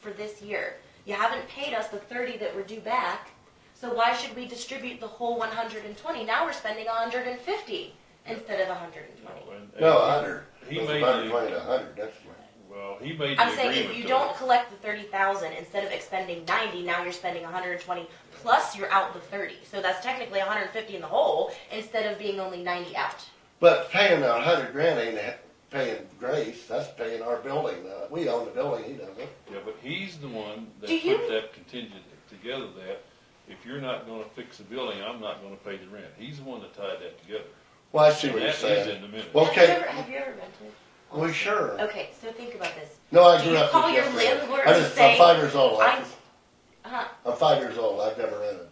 for this year. You haven't paid us the thirty that we're due back, so why should we distribute the whole one hundred and twenty? Now we're spending hundred and fifty instead of hundred and twenty. No, a hundred. He It's made about the- twenty to a hundred, that's right. Well, he made the I'm saying if agreement you to don't it. collect the thirty thousand, instead of expending ninety, now you're spending hundred and twenty, plus you're out the thirty. So that's technically hundred and fifty in the hole, instead of being only ninety out. But paying a hundred grand ain't ha- paying Grace, that's paying our building, uh, we own the building, he doesn't. Yeah, but he's the one that Do you- put that contingent together that if you're not gonna fix the building, I'm not gonna pay the rent. He's the one that tied that together. Well, I see what That you're is in saying. the minutes. Well, Have you Okay. ever, have you ever rented? Well, sure. Okay, so think about this. No, I Do grew you up. call in your Jefferson. landlord I and just- say, I'm five years old, I'm- I, Huh? I'm five years old, I've never rented.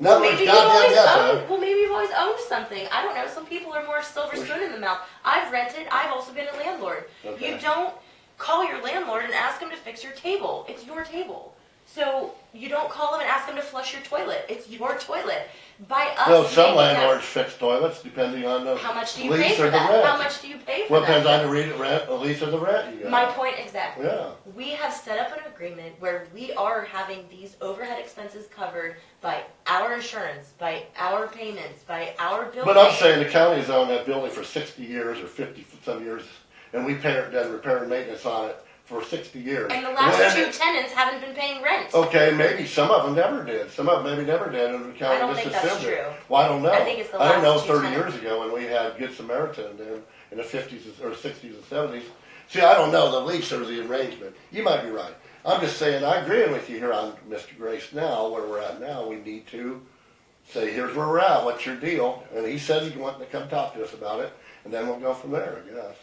In Well, other maybe words, you've always goddamn, yes, owned. Well, maybe you've always owned something. I don't know. Some people are more silver Well, spoon in the mouth. I've rented. I've also been a landlord. Okay. You don't call your landlord and ask him to fix your table. It's your table. So you don't call him and ask him to flush your toilet. It's your toilet. By us. I- well, some making that- landlords fix toilets depending on the How much do you pay lease or for the that? How rent. much do you pay for Well, that? depends on the re- rent, the lease or the rent you got. My point exactly. Yeah. We have set up an agreement where we are having these overhead expenses covered by our insurance, by our payments, by our building. But I'm saying the county's owned that building for sixty years or fifty some years, and we pay, done repair and maintenance on it for sixty years. And the last two When- tenants haven't been paying rent. Okay, maybe some of them never did, some of them maybe never did, and the I don't county just think that's assumed it. true. Well, I don't know. I think it's the I don't know last two thirty tenants. years ago when we had Good Samaritan then, in the fifties or sixties and seventies. See, I don't know the lease or the arrangement, you might be right. I'm just saying, I agree with you here on Mr. Grace now, where we're at now, we need to say, here's where we're at, what's your deal? And he said he's wanting to come talk to us about it, and then we'll go from there, I guess.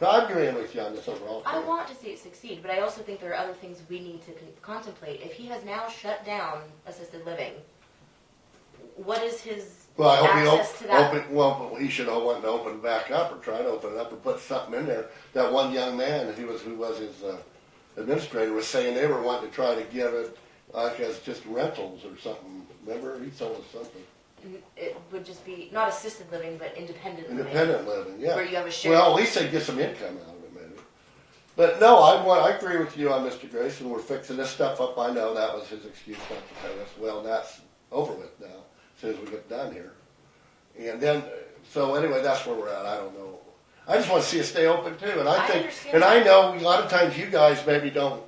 I'm agreeing with you on this overall. I thing. want to see it succeed, but I also think there are other things we need to con- contemplate. If he has now shut down assisted living, what is his Well, I hope access he to op- that? open, well, he should have wanted to open back up or try to open it up and put something in there. That one young man, he was, who was his uh, administrator, was saying they were wanting to try to give it like as just rentals or something. Remember, he told us something. It would just be not assisted living, but independent living. Independent living, yeah. Where you have a shared- Well, at least they get some income out of it, maybe. But no, I want, I agree with you on Mr. Grayson. We're fixing this stuff up. I know that was his excuse not to pay us. Well, that's over with now, as soon as we get done here. And then, so anyway, that's where we're at. I don't know. I just want to see it stay open too. And I I think, understand and that. I know a lot of times you guys maybe don't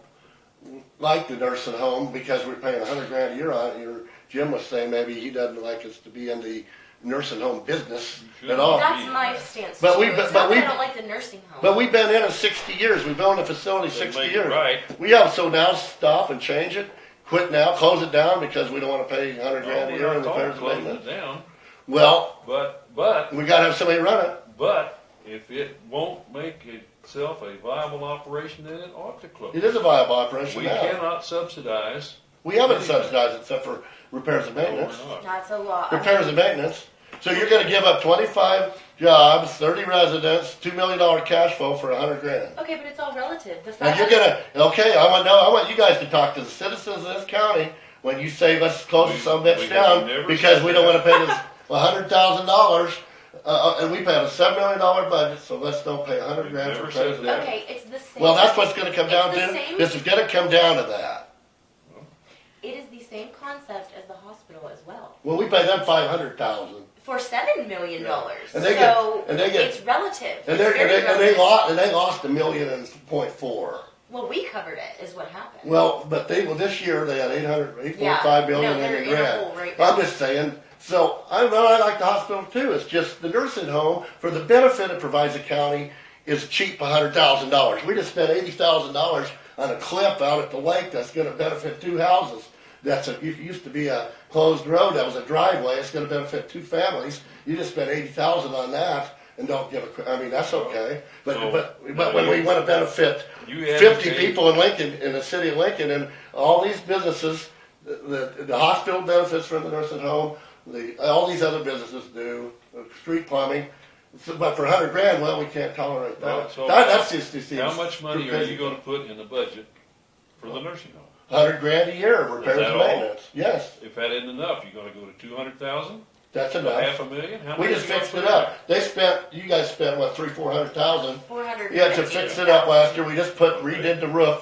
like the nursing home because we're paying a hundred grand a year on it. Your Jim was saying maybe he doesn't like us to be in the nursing home business You at should. all. That's my stance. But we- too. but- It's but not that we- I don't like the nursing home. But we've been in it sixty years. We've owned the facility They sixty make it years. right. We have, so now stop and change it, quit now, close it down because we don't wanna pay a hundred Oh, No, grand a we're year not in talking repairs and closing it maintenance. down, Well, but, but, we gotta have somebody run it. but if it won't make itself a viable operation, then it ought to close. It is a viable operation We now. cannot subsidize. We haven't subsidized it except for repairs and No, we're maintenance. not. That's a lot. Repairs and maintenance. So you're gonna give up twenty-five jobs, thirty residents, two million dollar cash flow for a hundred grand. Okay, but it's all relative. The Now fact you're that- gonna, okay, I want, no, I want you guys to talk to the citizens of this county when you say let's close We- some bitch we down never because said we don't wanna that. pay this hundred thousand dollars. Uh, uh, and we have a seven million dollar budget, so let's don't pay a hundred We grand for never said that. president. Okay, it's the same. Well, that's what's gonna come It's down the to, same- this is gonna come down to that. It is the same concept as the hospital as well. Well, we pay them five hundred thousand. For seven million dollars. And they get- so and they get- it's relative. It's And they're, and very they, and they relative. lost, and they lost a million and point four. Well, we covered it, is what happened. Well, but they, well, this year they had eight hundred, eight Yeah. point five million No, in they're the in a hole right grant. now. I'm just saying, so, I know, I like the hospital too, it's just the nursing home, for the benefit it provides the county, is cheap, a hundred thousand dollars. We just spent eighty thousand dollars on a cliff out at the lake that's gonna benefit two houses. That's a, it used to be a closed road, that was a driveway, it's gonna benefit two families. You just spent eighty thousand on that and don't give a, cr- I mean, that's okay, but, So, but, now but when you- we wanna benefit You fifty advocate- people in Lincoln, in the city of Lincoln, and all these businesses, the, the, the hospital benefits from the nursing home, the, all these other businesses do, uh, street plumbing. So, but for a hundred grand, well, we can't tolerate Well, that. so That, that's just, just. How much money are you gonna put in the budget for the nursing home? Hundred grand a year, repairs that and all? maintenance, yes, If that isn't enough, you're gonna go to two hundred thousand, that's half enough. a million? How We much just you gonna fixed put it in up, they spent, you guys spent, what, three, four hundred thousand? Four hundred. Yeah, to fix it up last year, we just put, redid the roof